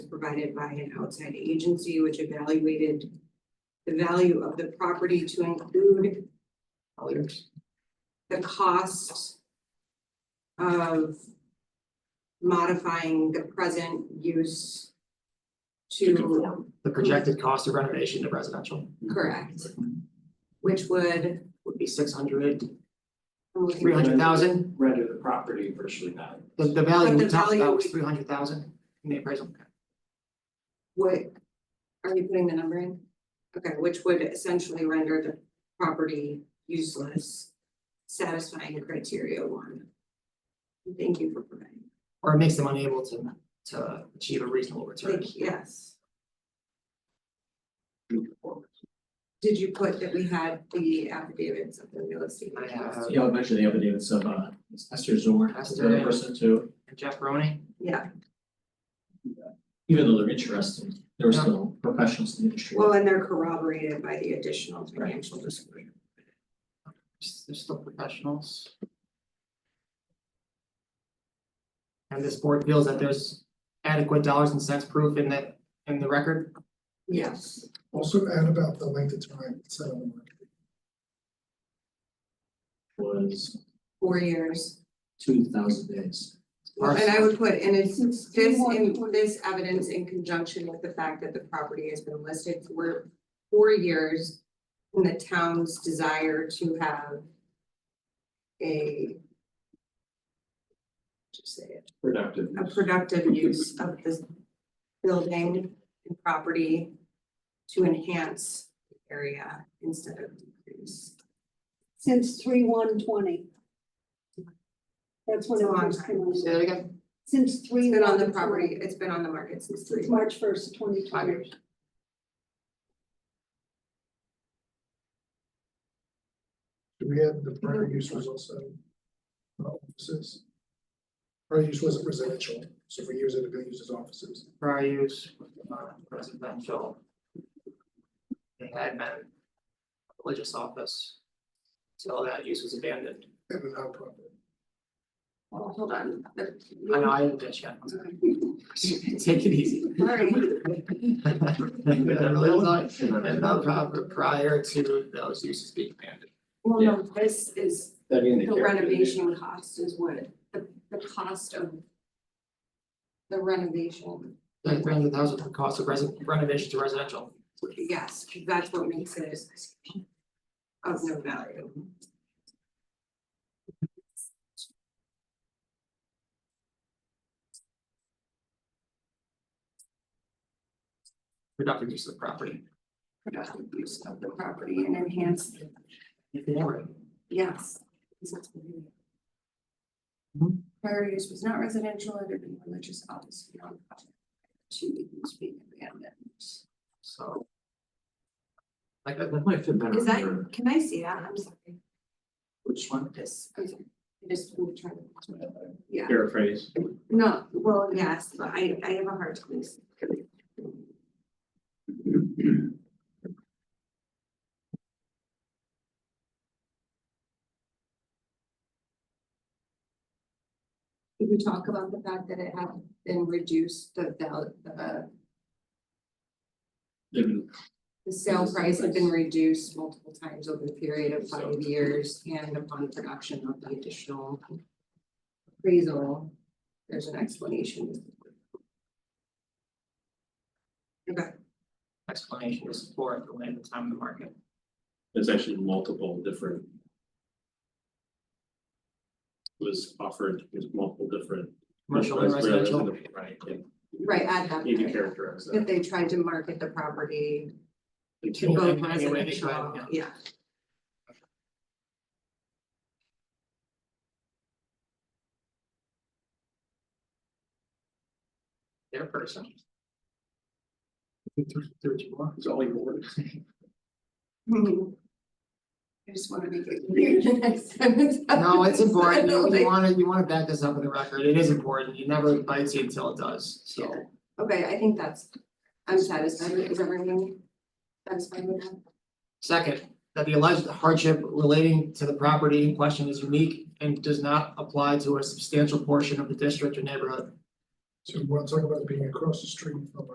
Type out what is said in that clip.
provided by an outside agency which evaluated the value of the property to include the cost of modifying the present use To to conform. The projected cost of renovation to residential correct, which would, would be six hundred, I'm looking- three hundred thousand, render the property virtually value. the the But value the we talked value about was we- three hundred thousand in the appraisal. What, are you putting the number in? Okay, which would essentially render the property useless, satisfying criteria one. Thank you for providing, Or it makes them unable to to achieve a reasonable return. thank, yes. Did you put that we had the affidavits of the real estate? I agents? have Yeah, I mentioned the other day, it's of uh, it's Esther Zorn, that's the Esther. other person too, Jeff Roney, Yeah, even though they're interested, they're still professionals in the industry. well, and they're corroborated by the additional financial disclosure. they're still professionals. And this board feels that there's adequate dollars and cents proof in that, in the record. Yes, Also add about the length of time it's set on the market. Was four years. two thousand days. Or- And I would put, and it's this in this evidence in conjunction with the fact that the property has been listed for four years. And the town's desire to have a. Just say it, Productive. a productive use of this building and property to enhance the area instead of decrease. since three one twenty. That's when It's it a long first came on, Say that again, since It's three been on one the property, twenty, it's been on the market since three. it's March first, twenty five twenty. years. Do we have the prior use was also? uh, Offices? Prior use wasn't residential, so if we use it, we're gonna use it as offices. prior use, uh, residential. They had been a religious office. Till that use was abandoned. And a nonprofit. Well, hold on. I know, I didn't ditch yet. Take it easy. Sorry. They're religious And nonprofit prior to those uses being abandoned. Well, no, this is That being the The character of renovation cost is what, the, the cost of the renovation, Like three hundred thousand for cost of resi- renovation to residential. yes, that's what makes it of no value. Productive use of the property. Productive use of the property and enhance, If they were, yes. Mm-hmm. Mhm. Prior use was not residential, it had been religious office. nonprofit, To use being abandoned. so. Like, uh, That might fit better Is that, for can I see that? I'm sorry, Mm-hmm. which one? this, I'm sorry, I just want to try to, yeah. Paraphrase. No, well, yes, but I, I have a hard time. s- Did we talk about the fact that it had been reduced, the, val- the, the sale price had been reduced multiple times over the period of five years and upon production of the additional appraisal, there's an explanation. Okay. explanation to support the land, the time, and the market. There's actually multiple different. Was offered, there's multiple different. Commercial and residential, Right, yeah. Right, add that. Need to characterize That that. they tried to market the property to Yeah, both any way they could, residential, yeah. yeah. their person. Through, through two more. It's all yours. I just wanna make it clear the next time it's. No, it's important, you, you Like, wanna, you wanna back this up with the record, it is important, it never bites you until it does, so. Okay, I think that's, I'm satisfied, with- is everyone satisfied with that? Second, that the alleged hardship relating to the property in question is unique and does not apply to a substantial portion of the district or neighborhood. So we're talking about being across the street from a